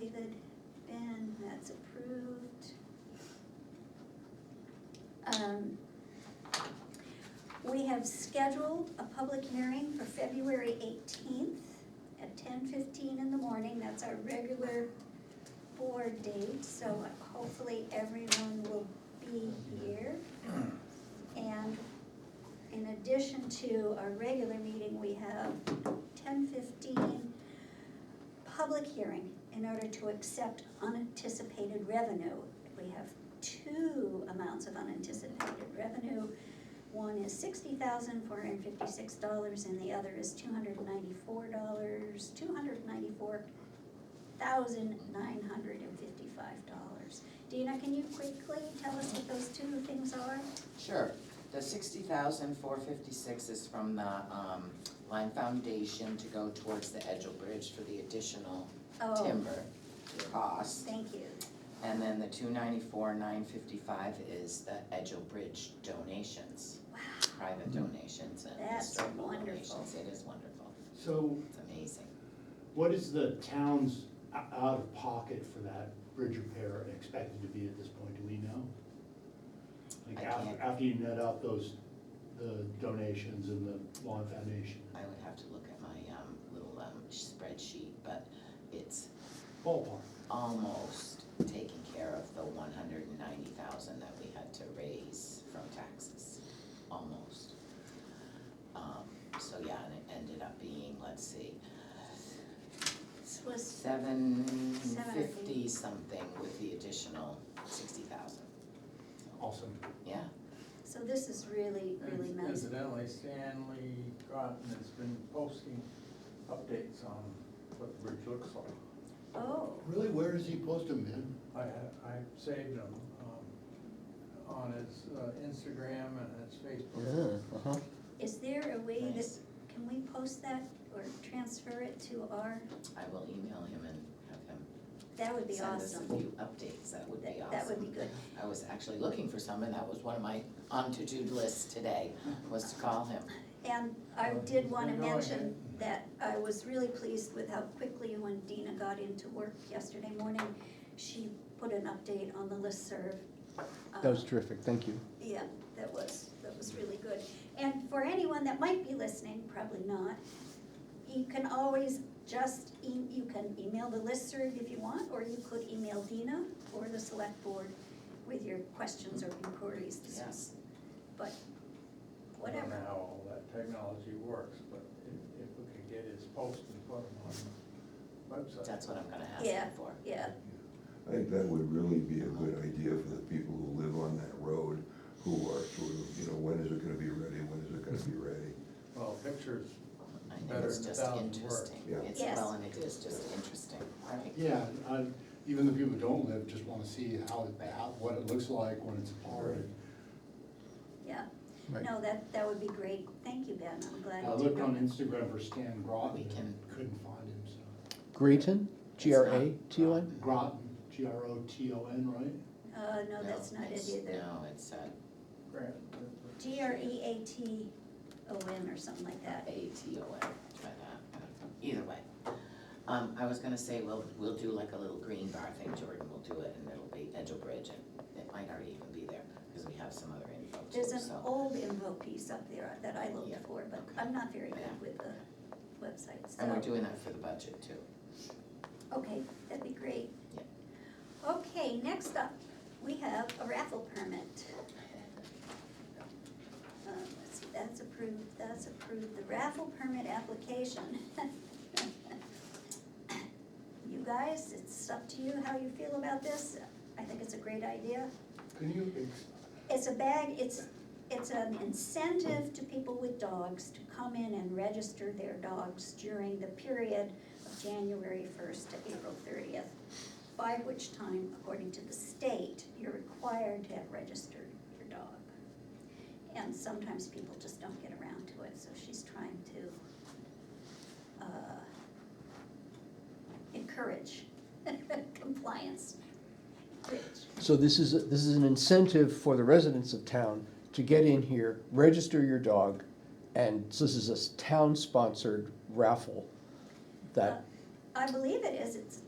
good. Ben, that's approved. Um, We have scheduled a public hearing for February eighteenth at ten fifteen in the morning. That's our regular board date, so hopefully everyone will be here. And in addition to our regular meeting, we have ten fifteen public hearing in order to accept unanticipated revenue. We have two amounts of unanticipated revenue. One is sixty thousand four hundred and fifty-six dollars and the other is two hundred and ninety-four dollars, two hundred and ninety-four thousand nine hundred and fifty-five dollars. Dina, can you quickly tell us what those two things are? Sure, the sixty thousand four fifty-six is from the, um, Lime Foundation to go towards the Edgel Bridge for the additional Oh, timber cost. thank you. And then the two ninety-four nine fifty-five is the Edgel Bridge donations, Wow, private donations and That's historical donations. wonderful. It is wonderful, So it's amazing. what is the town's o- out of pocket for that bridge repair expected to be at this point, do we know? Like I after, can't- after you net out those, the donations and the lawn foundation? I would have to look at my, um, little, um, spreadsheet, but it's Ballpark, almost taking care of the one hundred and ninety thousand that we had to raise from taxes, almost. Um, so yeah, and it ended up being, let's see, this was, seven Seven or fifty something with the additional sixty thousand, awesome. yeah. so this is really, really Inci- nice. Incidentally, Stanley Cotton has been posting updates on what the bridge looks like. Oh, Really, where does he post them, man? I, ha- I saved him, um, on his uh, Instagram and his Facebook. is there a way that, Nice. can we post that or transfer it to our, I will email him and have him that would be send us a awesome. few updates, that would be That, awesome. that would be good. I was actually looking for some and that was one of my on-to-do lists today, Uh-huh. was to call him. And Oh, I did wanna Well, go mention ahead. that I was really pleased with how quickly when Dina got into work yesterday morning, she put an update on the listserv. That was Um, terrific, thank you. Yeah, that was, that was really good. And for anyone that might be listening, probably not, you can always just, e- you can email the listserv if you want, or you could email Dina or the select board with your questions or inquiries. This Yeah. was- But, I don't know whatever, how all that technology works, but if, if we could get his post and put them on the website. That's what I'm gonna ask Yeah. him for. yeah, I think that would really be a good idea for the people who live on that road, who are sort of, you know, when is it gonna be ready, when is it gonna be ready? Well, pictures, I think Better it's than a just thousand interesting. Yeah. It's, Yes. well, and it is just interesting, right? Yeah, I, even the people who don't live just wanna see how, it- how, what it looks like when it's apart. yeah. Right. No, that, that would be great. Thank you, Ben. I'm glad. I you did looked on that. Instagram for Stan We Groton, can- and couldn't find him, so. Grayton, It's G R A not- T O N? um, Groton, G R O T O N, right? Uh, no, that's not it it's- either. No, it's uh, Grant. G R E A T O N or something like that. A T O N, try that, either way. Um, I was gonna say, well, we'll do like a little green bar thing, Jordan will do it, and it'll be Edgel Bridge, and it might already even be there, because we have some other info too, There's an so. old info piece up there that I looked Yeah. for, but Okay. I'm not very Yeah. good with the website, And we're so, doing that for the budget too. okay, that'd be great. Okay, next up, we have a raffle permit. Um, let's see, that's approved, that's approved, the raffle permit application. You guys, it's up to you how you feel about this, I think it's a great idea. Can you ex- It's a bag, it's, it's an incentive to people with dogs to come in and register their dogs during the period of January first to April thirtieth, by which time, according to the state, you're required to have registered your dog. And sometimes people just don't get around to it, so she's trying to, uh, encourage compliance, which So this is, this is an incentive for the residents of town to get in here, register your dog, and so this is a town-sponsored raffle that, I believe it is, it's